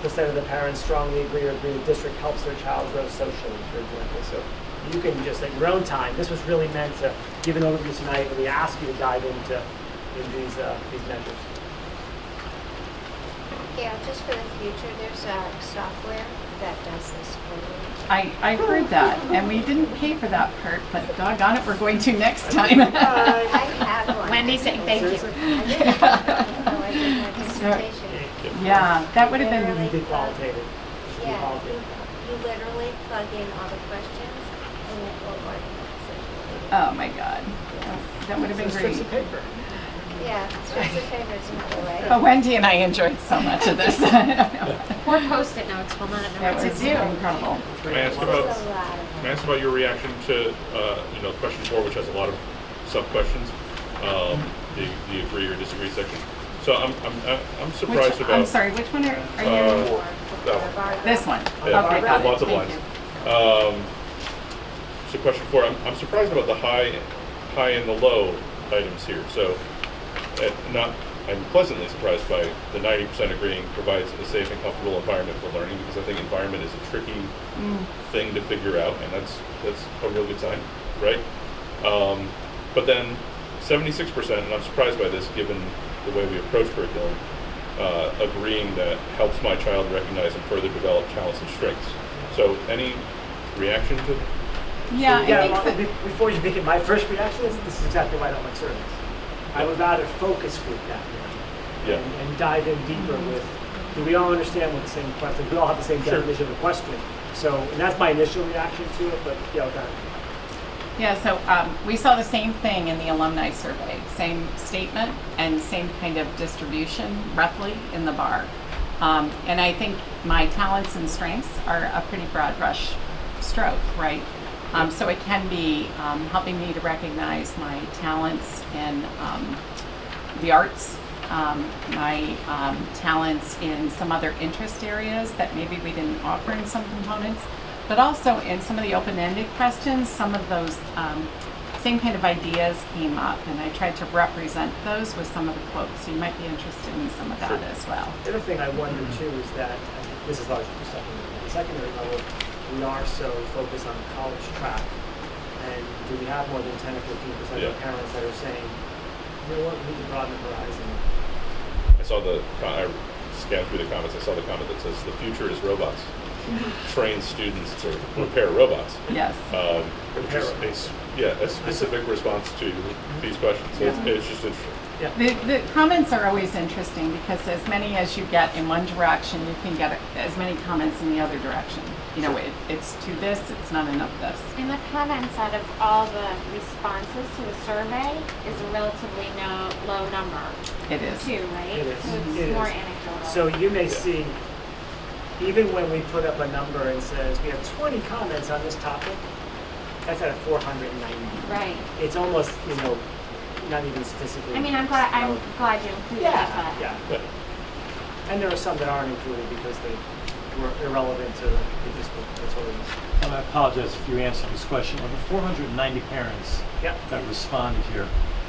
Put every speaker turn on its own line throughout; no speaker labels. percent of the parents strongly agree or agree the district helps their child grow socially, for example. So you can just at your own time. This was really meant to give an overview tonight, and we ask you to dive into in these uh, these measures.
Yeah, just for the future, there's a software that does this for you.
I, I heard that, and we didn't pay for that part, but doggone it, we're going to next time.
I have one.
Wendy's saying thank you.
I did have one before I did my presentation.
Yeah, that would have
You
been,
Really?
did qualitative. You did
Yeah, you
qualitative.
you literally plug in all the questions and it will organize it.
oh my God. That would have been
Strips
great.
of paper.
Yeah, strips of paper is another
But
way.
Wendy and I enjoyed so much of this. That
Or post-it notes, we'll not know what to
was
do.
incredible.
Can I ask
There's a
about,
lot of
can I ask about your reaction to, uh, you know, question four, which has a lot of sub-questions, um, the, the agree or disagree section? So I'm, I'm, I'm surprised
Which,
about.
I'm sorry, which one are, are you?
Uh, that one.
This one? Okay,
Yeah,
got it,
Lots of
thank
lines.
you.
Um, so question four, I'm, I'm surprised about the high, high and the low items here. So, uh, not, I'm pleasantly surprised by the 90% agreeing provides a safe and comfortable environment for learning because I think environment is a tricky thing to figure out, and that's that's a real good sign, right? Um, but then, 76%, and I'm surprised by this given the way we approach curriculum, uh, agreeing that helps my child recognize and further develop talents and strengths. So, any reaction to?
Yeah, I
Yeah,
think
well,
that-
be- before you begin, my first reaction is this is exactly why I don't like surveys. I would rather focus group that
Yeah.
and, and dive in deeper
Mm-hmm.
with. Do we all understand what the same question? We all have the same
Sure.
definition of a question. So and that's my initial reaction to it. But yeah, okay.
Yeah, so um, we saw the same thing in the alumni survey, same statement and same kind of distribution roughly in the bar. Um, and I think my talents and strengths are a pretty broad brush stroke, right? Um, so it can be um, helping me to recognize my talents in um, the arts, um, my um, talents in some other interest areas that maybe we didn't offer in some components, but also in some of the open-ended questions, some of those um, same kind of ideas came up, and I tried to represent those with some of the quotes. So you might be interested in some of that as well.
The other thing I wonder too
Mm-hmm.
is that and this is largely for secondary. At the secondary level, we are so focused on the college track, and do we have more than ten or fifteen percent of
Yeah.
parents that are saying, you know what, we need to broaden the horizon.
I saw the co- I scanned through the comments. I saw the comment that says the future is robots. Train students to repair robots.
Yes.
Um, which is a s yeah, a specific response to these questions. So it's, it's just interesting.
Yeah.
The, the comments are always interesting because as many as you get in one direction, you can get as many comments in the other direction. You know, it, it's to this, it's not enough this.
And the comments out of all the responses to the survey is a relatively no, low number
It is.
too, right?
It is.
So it's
It
more
is.
anecdotal.
So you may see, even when we put up a number and says, we have 20 comments on this topic, that's out of 490.
right.
It's almost, you know, not even statistically.
I mean, I'm glad I'm
relevant.
glad you included
Yeah,
that.
yeah. And there are some that aren't included because they were irrelevant to the district. That's what it is.
And I apologize if you answered this question. Of the 490 parents
Yeah.
that responded here,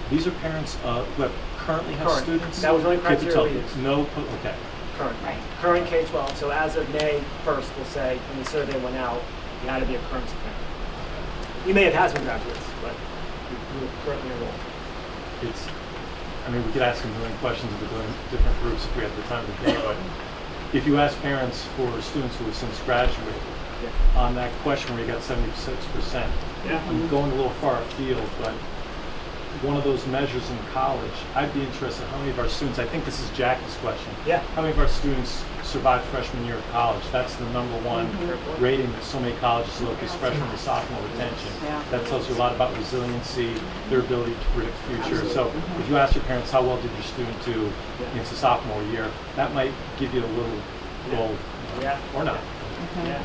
these are parents uh, who have currently have
Current.
students?
That was only
K through
criteria
12.
we used.
No, po- okay.
Current.
Right.
Current K-12. So as of May 1st, we'll say, when the survey went out, you had to be a current parent. You may have had some graduates, but you- you were currently enrolled.
It's, I mean, we could ask a million questions if we're doing different groups if we had the time to do it, but if you ask parents for students who have since graduated,
Yeah.
on that question where you got 76%,
Yeah.
I'm going a little far afield, but one of those measures in college, I'd be interested how many of our students, I think this is Jackie's question,
Yeah.
How many of our students survived freshman year of college? That's the number one
Mm-hmm.
rating that so many colleges look is freshman and sophomore retention.
Yeah.
That tells you a lot about resiliency, their ability to predict future. So if you ask your parents, how well did your student do
Yeah.
into sophomore year? That might give you a little goal,
Yeah.
or not.
Yeah.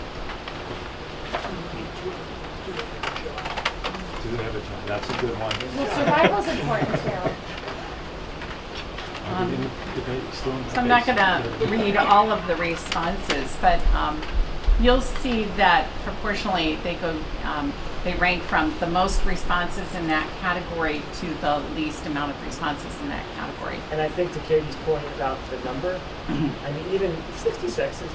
Do they have a job? That's a good one.
Well, survival's important too.
Um,
Did they- did they still-
So I'm not going to read all of the responses, but um, you'll see that proportionally they go, um, they rank from the most responses in that category to the least amount of responses in that category.
And I think to Katie's point about the number, I mean, even 66 is